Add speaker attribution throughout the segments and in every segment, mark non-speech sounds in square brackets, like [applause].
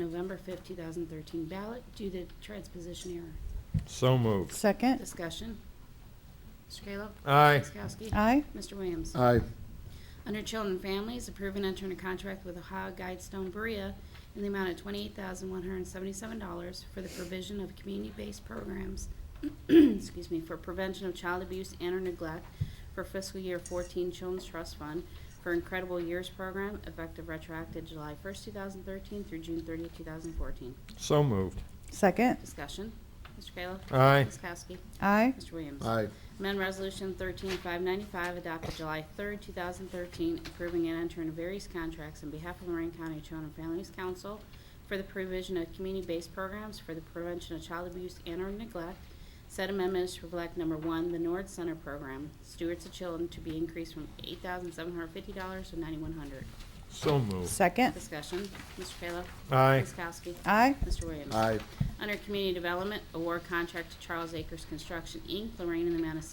Speaker 1: November 5, 2013 ballot due to transposition error.
Speaker 2: So moved.
Speaker 3: Second.
Speaker 1: Discussion. Mr. Kayla?
Speaker 2: Aye.
Speaker 1: Ms. Kowski?
Speaker 3: Aye.
Speaker 1: Mr. Williams?
Speaker 4: Aye.
Speaker 1: Under Children and Families, approve and enter a contract with Ohio Guidestone Berea in the amount of $28,177 for the provision of community-based programs, [clears throat] excuse me, for prevention of child abuse and or neglect for fiscal year 14 Children's Trust Fund for Incredible Years Program, effective retroactive July 1st, 2013 through June 30th, 2014.
Speaker 2: So moved.
Speaker 3: Second.
Speaker 1: Discussion. Mr. Kayla?
Speaker 2: Aye.
Speaker 1: Ms. Kowski?
Speaker 3: Aye.
Speaker 1: Mr. Williams?
Speaker 4: Aye.
Speaker 1: Amend Resolution 13595 adopted July 3, 2013, approving and entering various contracts on behalf of Lorraine County Children and Families Council for the provision of community-based programs for the prevention of child abuse and or neglect. Said amendments reflect number one, the Nord Center Program, Stewards of Children to be increased from $8,750 to $9,100.
Speaker 2: So moved.
Speaker 3: Second.
Speaker 1: Discussion, Mr. Kayla.
Speaker 2: Aye.
Speaker 1: Ms. Kowski.
Speaker 3: Aye.
Speaker 1: Mr. Williams.
Speaker 4: Aye.
Speaker 1: Under Community Development, award contract to Charles Acres Construction, Inc., Lorraine, in the amount of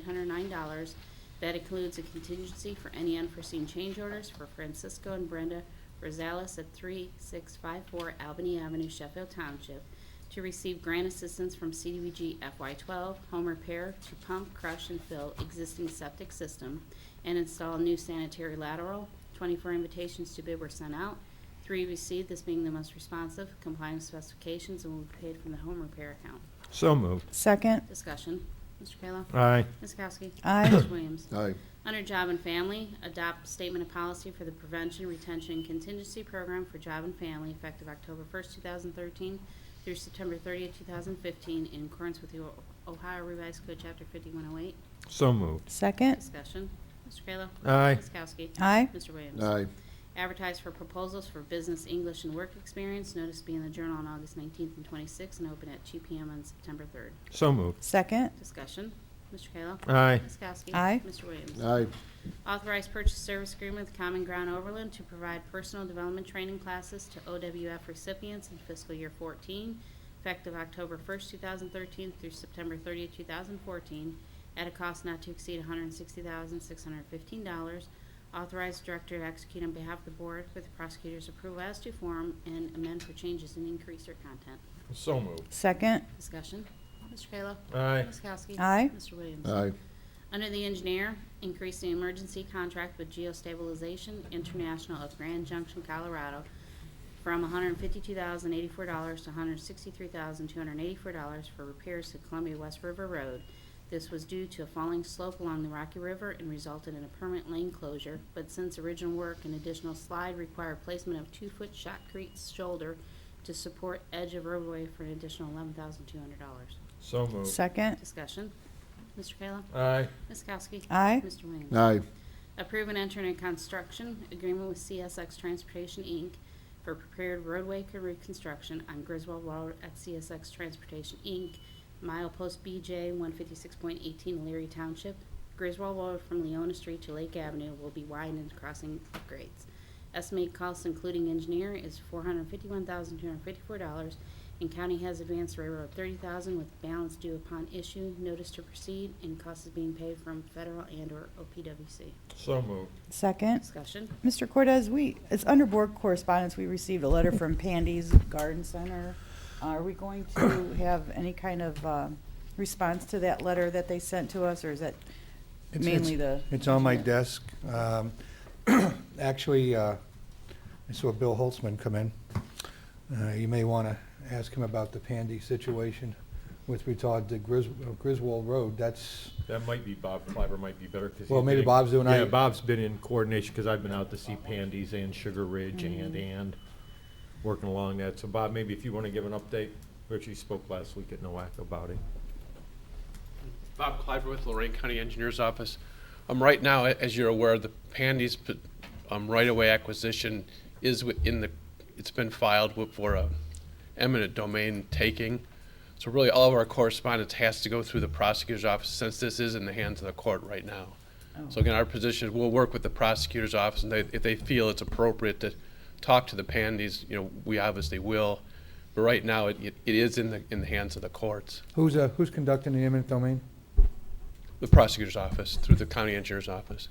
Speaker 1: $6,809. That includes a contingency for any unforeseen change orders for Francisco and Brenda Rosales at 3654 Albany Avenue, Sheffield Township, to receive grant assistance from CDBG FY12 home repair to pump, crush, and fill existing septic system and install new sanitary lateral. 24 invitations to bid were sent out. Three received, this being the most responsive, complying with specifications, and will be paid from the home repair account.
Speaker 2: So moved.
Speaker 3: Second.
Speaker 1: Discussion. Mr. Kayla?
Speaker 2: Aye.
Speaker 1: Ms. Kowski?
Speaker 3: Aye.
Speaker 1: Mr. Williams?
Speaker 4: Aye.
Speaker 1: Under Job and Family, adopt statement of policy for the Prevention, Retention, and Contingency Program for Job and Family effective October 1st, 2013 through September 30th, 2015, in accordance with the O- Ohio Revised Code, Chapter 5108.
Speaker 2: So moved.
Speaker 3: Second.
Speaker 1: Discussion. Mr. Kayla?
Speaker 2: Aye.
Speaker 1: Ms. Kowski?
Speaker 3: Aye.
Speaker 1: Mr. Williams?
Speaker 4: Aye.
Speaker 1: Advertise for proposals for business, English, and work experience. Notice to be in the Journal on August 19th and 26th and open at 2 PM on September 3rd.
Speaker 2: So moved.
Speaker 3: Second.
Speaker 1: Discussion. Mr. Kayla?
Speaker 2: Aye.
Speaker 1: Ms. Kowski?
Speaker 3: Aye.
Speaker 1: Mr. Williams?
Speaker 4: Aye.
Speaker 1: Authorized purchase service agreement with Common Ground Overland to provide personal development training classes to OWF recipients in fiscal year 14, effective October 1st, 2013 through September 30th, 2014, at a cost not to exceed $160,615. Authorized director to execute on behalf of the board with the prosecutor's approval as to form and amend for changes and increase or content.
Speaker 2: So moved.
Speaker 3: Second.
Speaker 1: Discussion. Mr. Kayla.
Speaker 2: Aye.
Speaker 1: Ms. Kowski.
Speaker 3: Aye.
Speaker 1: Mr. Williams.
Speaker 4: Aye.
Speaker 1: Under the engineer, increase the emergency contract with Geostabilization International of Grand Junction, Colorado, from $152,084 to $163,284 for repairs to Columbia West River Road. This was due to a falling slope along the Rocky River and resulted in a permanent lane closure, but since original work, an additional slide required placement of two-foot shotcrete shoulder to support edge of roadway for an additional $11,200.
Speaker 2: So moved.
Speaker 3: Second.
Speaker 1: Discussion. Mr. Kayla?
Speaker 2: Aye.
Speaker 1: Ms. Kowski?
Speaker 3: Aye.
Speaker 1: Mr. Williams?
Speaker 4: Aye.
Speaker 1: Approve and enter in construction agreement with CSX Transportation, Inc. for prepared roadway reconstruction on Griswold Road at CSX Transportation, Inc., milepost BJ 156.18 Leary Township. Griswold Road from Leona Street to Lake Avenue will be widened crossing upgrades. Estimated costs, including engineer, is $451,254, and county has advanced railroad $30,000 with balance due upon issue, notice to proceed, and costs is being paid from federal and/or OPWC.
Speaker 2: So moved.
Speaker 3: Second.
Speaker 1: Discussion.
Speaker 3: Mr. Cortez, we, it's under board correspondence, we received a letter from Pandy's Garden Center. Are we going to have any kind of um, response to that letter that they sent to us, or is that
Speaker 5: It's-
Speaker 3: mainly the?
Speaker 5: it's- It's on my desk. Um, [clears throat] Actually, uh, I saw Bill Holtzman come in. Uh, You may want to ask him about the Pandy situation with regard to Gris- uh, Griswold Road. That's,
Speaker 2: That might be Bob Clyber might be better. 'cause
Speaker 5: Well,
Speaker 2: he's
Speaker 5: maybe
Speaker 2: been in-
Speaker 5: Bob's doing-
Speaker 2: Yeah,
Speaker 5: I-
Speaker 2: Bob's been in coordination because I've been out to see Pandy's and Sugar Ridge and, and working along that. So Bob, maybe if you want to give an update, we actually spoke last week at NOAC about it.
Speaker 6: Bob Cliver with Lorraine County Engineers Office. Um, right now, a- as you're aware, the Pandy's, p- um, right-of-way acquisition is wi- in the, it's been filed wi- for a eminent domain taking. So really, all of our correspondence has to go through the prosecutor's office, since this is in the hands of the court right now. So again, our position is we'll work with the prosecutor's office, and they, if they feel it's appropriate to talk to the Pandy's, you know, we obviously will. But right now, it, it it is in the, in the hands of the courts.
Speaker 5: who's, uh, who's conducting the eminent domain?
Speaker 6: The prosecutor's office, through the county engineer's office.